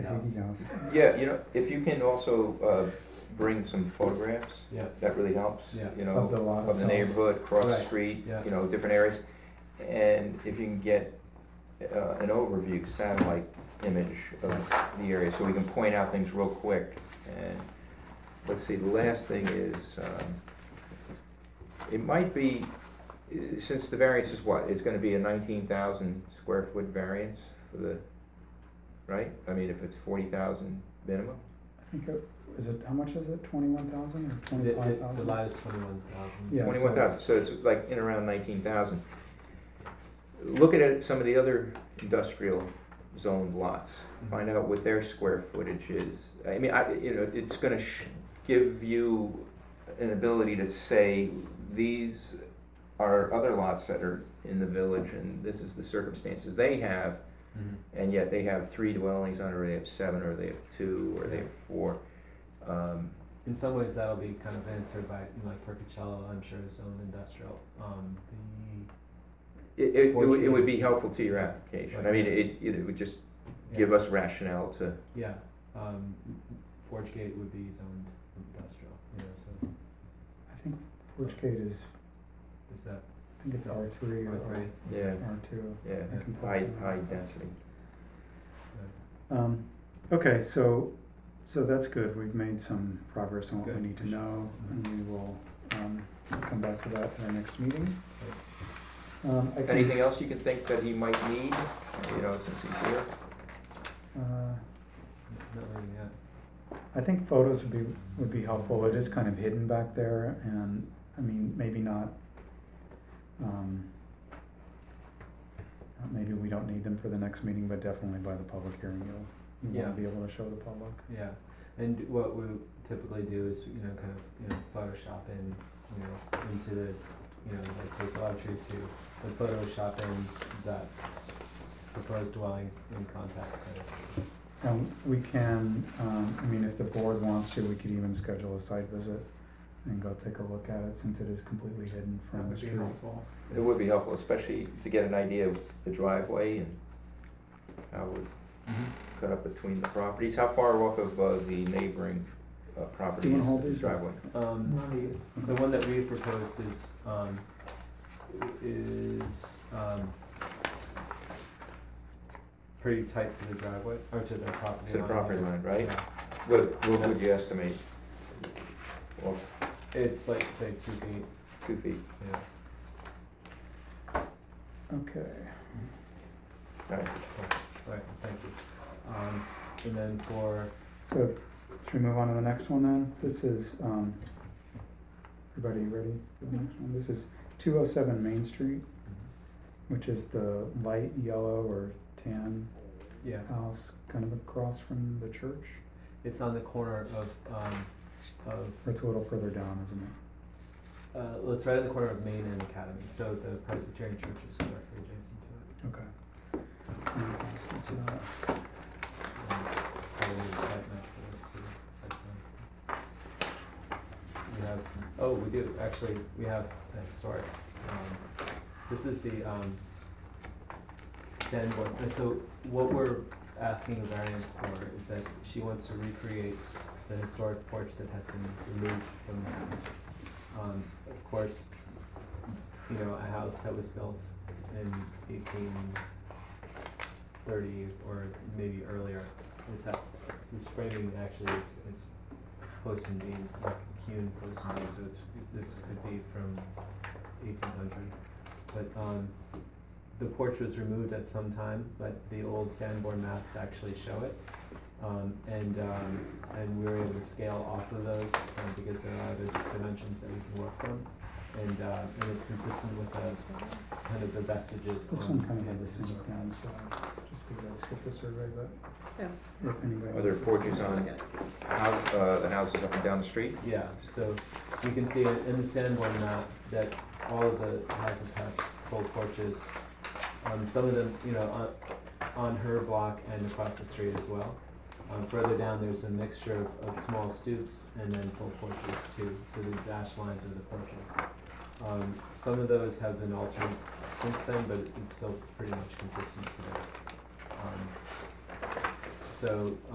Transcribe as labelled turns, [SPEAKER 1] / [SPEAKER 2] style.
[SPEAKER 1] I think he knows.
[SPEAKER 2] Yeah, you know, if you can also uh, bring some photographs,
[SPEAKER 3] Yeah.
[SPEAKER 2] that really helps,
[SPEAKER 3] Yeah.
[SPEAKER 2] you
[SPEAKER 1] Of
[SPEAKER 2] know,
[SPEAKER 1] the lot
[SPEAKER 2] of the
[SPEAKER 1] itself.
[SPEAKER 2] neighborhood, across the
[SPEAKER 3] Right,
[SPEAKER 2] street,
[SPEAKER 3] yeah.
[SPEAKER 2] you know, different areas. And if you can get uh, an overview satellite image of the area, so we can point out things real quick. And let's see, the last thing is, um, it might be, uh, since the variance is what, it's gonna be a nineteen thousand square foot variance for the, right? I mean, if it's forty thousand minimum?
[SPEAKER 1] I think it, is it, how much is it, twenty-one thousand or
[SPEAKER 3] The,
[SPEAKER 1] twenty-five
[SPEAKER 3] the, the
[SPEAKER 1] thousand?
[SPEAKER 3] lot is twenty-one thousand.
[SPEAKER 1] Yeah. so
[SPEAKER 2] Twenty-one
[SPEAKER 1] it's-
[SPEAKER 2] thousand, so it's like in around nineteen thousand. Looking at some of the other industrial zoned lots,
[SPEAKER 3] Mm-hmm.
[SPEAKER 1] Mm-hmm.
[SPEAKER 2] find out what their square footage is. I mean, I, you know, it's gonna sh- give you an ability to say, these are other lots that are in the village and this is the circumstances they have. And yet they have three dwellings on, it, or they have seven, or they have two, or they have four. Um,
[SPEAKER 3] In some ways, that'll be kind of answered by, you know, like Percocello, I'm sure is owned industrial. Um, the,
[SPEAKER 2] It, it, it would, it would be
[SPEAKER 3] Fortunes.
[SPEAKER 2] helpful to your application, I mean, it, it would just
[SPEAKER 3] yeah,
[SPEAKER 2] give us rationale to,
[SPEAKER 3] Yeah, um, Forge Gate would be zoned industrial, you know, so
[SPEAKER 1] I think Forge Gate is,
[SPEAKER 3] is that
[SPEAKER 1] I think it's R three or
[SPEAKER 3] right?
[SPEAKER 1] R
[SPEAKER 2] yeah,
[SPEAKER 1] two.
[SPEAKER 2] yeah,
[SPEAKER 1] I can pull
[SPEAKER 2] high,
[SPEAKER 1] it up.
[SPEAKER 2] high density.
[SPEAKER 1] Um, okay, so, so that's good, we've made some progress on what we
[SPEAKER 3] Good.
[SPEAKER 1] need to know, and we will, um, come back to that at our next meeting.
[SPEAKER 3] That's-
[SPEAKER 1] Um, I think,
[SPEAKER 2] Anything else you can think that he might need, you know, since he's here?
[SPEAKER 1] uh,
[SPEAKER 3] Not really, yeah.
[SPEAKER 1] I think photos would be, would be helpful, it is kind of hidden back there, and, I mean, maybe not, um, uh, maybe we don't need them for the next meeting, but definitely by the public hearing, you'll, you
[SPEAKER 3] Yeah.
[SPEAKER 1] wanna be able to show the public.
[SPEAKER 3] Yeah, and what we typically do is, you know, kind of, you know, Photoshop in, you know, into the, you know, like there's a lot of trees do, but Photoshop in that proposed dwelling in context, so it's,
[SPEAKER 1] Um, we can, um, I mean, if the board wants to, we could even schedule a site visit and go take a look at it, since it is completely hidden
[SPEAKER 3] That
[SPEAKER 1] from the
[SPEAKER 3] would be
[SPEAKER 1] street.
[SPEAKER 3] helpful.
[SPEAKER 2] It would be helpful, especially to get an idea of the driveway and how it would
[SPEAKER 1] Mm-hmm.
[SPEAKER 2] cut up between the properties, how far off of, uh, the neighboring, uh, property
[SPEAKER 1] wanna
[SPEAKER 2] is
[SPEAKER 1] hold
[SPEAKER 2] the
[SPEAKER 1] these?
[SPEAKER 2] driveway?
[SPEAKER 3] Um, The one that we proposed is, um, is, um, pretty tight to the driveway, or to the property line.
[SPEAKER 2] To the property
[SPEAKER 3] yeah.
[SPEAKER 2] line, right?
[SPEAKER 3] Yeah.
[SPEAKER 2] What, what would you estimate? Well,
[SPEAKER 3] It's like, say, two feet,
[SPEAKER 2] two feet,
[SPEAKER 3] yeah.
[SPEAKER 1] Okay,
[SPEAKER 2] all right.
[SPEAKER 3] Right, thank you. Um, and then for,
[SPEAKER 1] so, should we move on to the next one then? This is, um, everybody ready for the next one? This is two oh seven Main Street, which is the light yellow or tan
[SPEAKER 3] yeah,
[SPEAKER 1] house kind of across from the church,
[SPEAKER 3] it's on the corner of, um, of,
[SPEAKER 1] or it's a little further down, isn't it?
[SPEAKER 3] uh, well, it's right on the corner of Main and Academy, so the Presbyterian Church is directly adjacent to
[SPEAKER 1] Okay. Let me pass this
[SPEAKER 3] it. It's,
[SPEAKER 1] out.
[SPEAKER 3] uh, um, probably the site map for this, uh, site plan. We have some, oh, we do, actually, we have a historic, um, this is the, um, Sanborn, uh, so what we're asking the variance for is that she wants to recreate the historic porch that has been removed from the house. Um, of course, you know, a house that was built in eighteen thirty or maybe earlier, it's at, this framing actually is, is close to being, like, hewn close to me, so it's, this could be from eighteen hundred. But, um, the porch was removed at some time, but the old Sanborn maps actually show it. Um, and, um, and we were able to scale off of those, um, because there are other dimensions that we can work from. And, uh, and it's consistent with the, kind of the vestiges
[SPEAKER 1] This
[SPEAKER 3] on
[SPEAKER 1] one kind of had the
[SPEAKER 3] campus
[SPEAKER 1] same
[SPEAKER 3] historic
[SPEAKER 1] thing,
[SPEAKER 3] house.
[SPEAKER 1] so just figured I'd skip the survey, but
[SPEAKER 4] Yeah.
[SPEAKER 1] if anybody.
[SPEAKER 2] Are there
[SPEAKER 1] else is-
[SPEAKER 2] porches on, house, uh, the houses up and down the street?
[SPEAKER 3] Yeah, so you can see it in the Sanborn map that all of the houses have full porches. Um, some of them, you know, on, on her block and across the street as well. Um, further down, there's a mixture of, of small stoops and then full porches too, so the dashed lines are the porches. Um, some of those have been altered since then, but it's still pretty much consistent today. Um, so,